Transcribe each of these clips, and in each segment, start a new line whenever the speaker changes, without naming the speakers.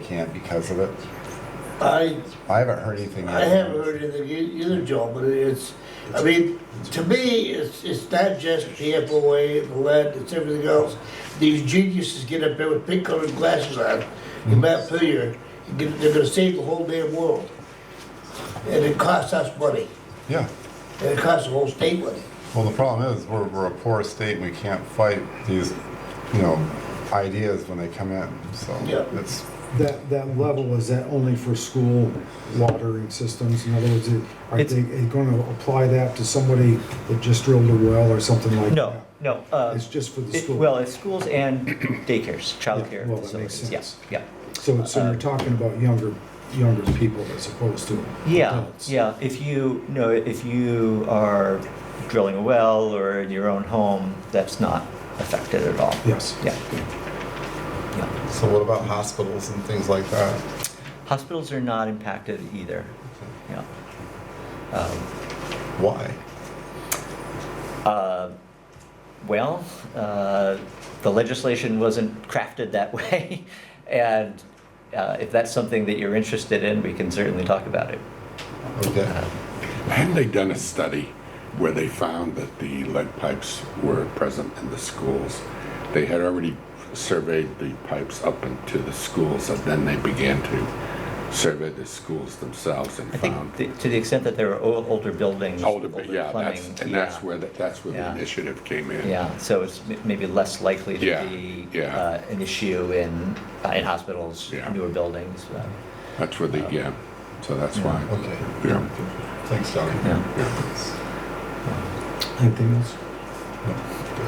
can't because of it?
I,
I haven't heard anything yet.
I haven't heard anything e- either, Joe, but it's, I mean, to me, it's, it's not just the FOA, the lead, it's everything else. These geniuses get up there with pink colored glasses on, in Mount Pilgrim, and get- they're gonna save the whole damn world. And it costs us money,
Yeah,
and it costs the whole state money.
well, the problem is, we're, we're a poor state, and we can't fight these, you know, ideas when they come in, so
Yeah.
it's,
That, that level, is that only for school watering systems? In other words, it- are
It's-
they going to apply that to somebody that just drilled a well or something like that?
No, no. uh,
It's just for the
it-
school?
Well, it's schools and daycares,
Yeah,
childcare
well, that makes
facilities, yes,
sense.
yeah.
So, so
uh,
you're talking about younger, younger people as opposed to
Yeah,
adults?
yeah, if you, no, if you are drilling a well or in your own home, that's not affected at all.
Yes.
Yeah. Yeah.
so what about hospitals and things like that?
Hospitals are not impacted either, yeah. Um,
Why?
Uh, Well, uh, the legislation wasn't crafted that way, and uh, if that's something that you're interested in, we can certainly talk about it.
Okay,
Hadn't they done a study where they found that the lead pipes were present in the schools? They had already surveyed the pipes up into the schools, and then they began to survey the schools themselves and
I think
found
th- to the extent that there are o- older buildings,
Um, older,
older
but yeah, that's,
plumbing.
and that's
yeah,
where, the- that's where the
Yeah.
initiative came in.
Yeah, so it's m- maybe less likely
Yeah,
to be
yeah.
uh, an issue in, uh, in hospitals,
Yeah.
newer buildings. uh,
That's where the, yeah, so that's
Yeah.
why.
okay,
Yeah.
thanks, Johnny.
yeah.
Anything else?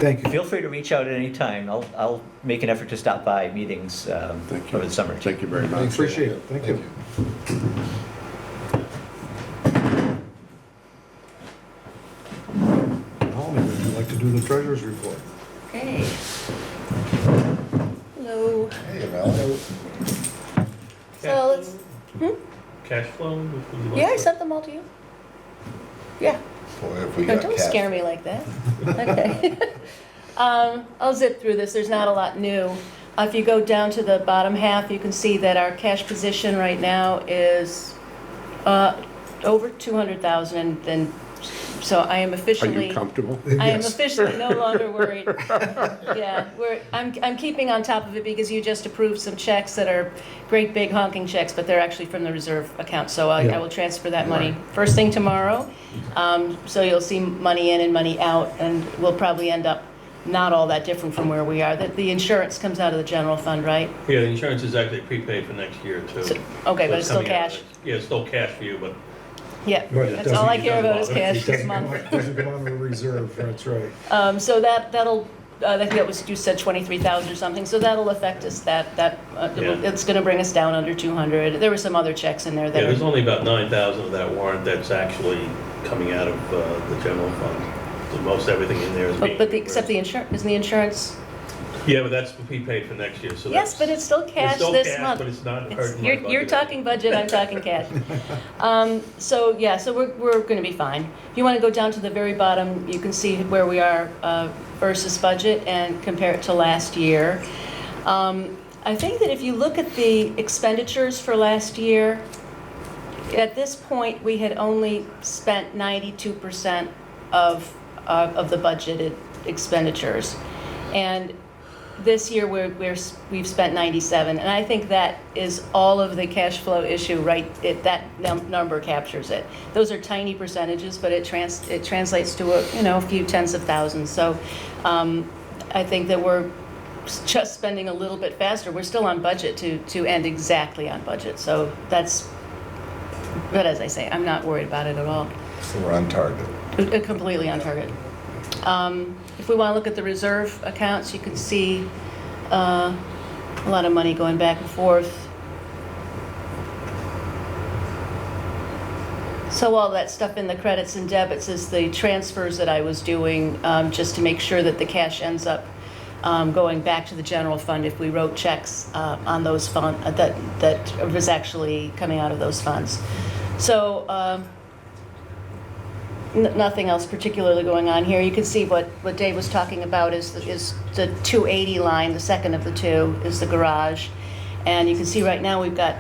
Thank you.
Feel free to reach out at any time. I'll, I'll make an effort to stop by meetings um,
Thank you.
over the summer.
Thank you very
I
much.
appreciate it. Thank you. Holly, would you like to do the treasurer's report?
Okay. Hello.
Hey, Val.
So let's, Hmm?
Cash flow? which would you like
yeah, I
to-
sent them all to you. Yeah,
Boy, if we
no,
got
don't
cats-
scare me like that. Okay. Um, I'll zip through this, there's not a lot new. Uh, If you go down to the bottom half, you can see that our cash position right now is, uh, over two hundred thousand and, and so I am
Are
officially.
you comfortable?
I am
Yes.
officially no longer worried. Yeah, we're, I'm, I'm keeping on top of it because you just approved some checks that are great big honking checks, but they're actually from the reserve account, so I, I
Yeah.
will transfer that money first thing tomorrow. Um, so you'll see money in and money out, and we'll probably end up not all that different from where we are. The, the insurance comes out of the general fund, right?
Yeah, the insurance is actually prepaid for next year
So-
too. So
Okay, but it's still
coming out of
cash.
it. Yeah, it's still cash for you, but
Yeah,
Right, it
that's all I
doesn't-
care about is
doesn't bother-
cash this month.
Doesn't go on the reserve, that's right.
Um, so that, that'll, uh, I think that was, you said twenty-three thousand or something, so that'll affect us, that, that, uh, it will-
Yeah.
it's gonna bring us down under two hundred. There were some other checks in there
yeah,
that
there's
are,
only about nine thousand of that warrant that's actually coming out of uh, the general fund. So most everything in there is
but,
being.
but the, except the insurance, isn't the insurance?
reimbursed. Yeah, but that's prepaid for next year, so that's.
Yes, but it's still cash
still
this
cash,
month.
But it's not
It's-
hurting my
You're, you're
budget.
talking budget, I'm talking cash. Um, so, yeah, so we're, we're gonna be fine. If you wanna go down to the very bottom, you can see where we are, uh, versus budget and compare it to last year. Um, I think that if you look at the expenditures for last year, at this point, we had only spent ninety-two percent of, uh, of the budgeted expenditures. And this year, we're, we're, s- we've spent 97, and I think that is all of the cash flow issue, right? It, that num- number captures it. Those are tiny percentages, but it trans, it translates to a, you know, a few tens of thousands. So, um, I think that we're s- just spending a little bit faster. We're still on budget to, to end exactly on budget, so that's, but as I say, I'm not worried about it at all.
So we're on target.
Uh, Completely on target. Um, If we want to look at the reserve accounts, you can see uh, a lot of money going back and forth. So all that stuff in the credits and debits is the transfers that I was doing, um, just to make sure that the cash ends up um, going back to the general fund if we wrote checks uh, on those fund, uh, that, that was actually coming out of those funds. So um, n- nothing else particularly going on here. You can see what, what Dave was talking about is, the- is the 280 line, the second of the two, is the garage. And you can see right now, we've got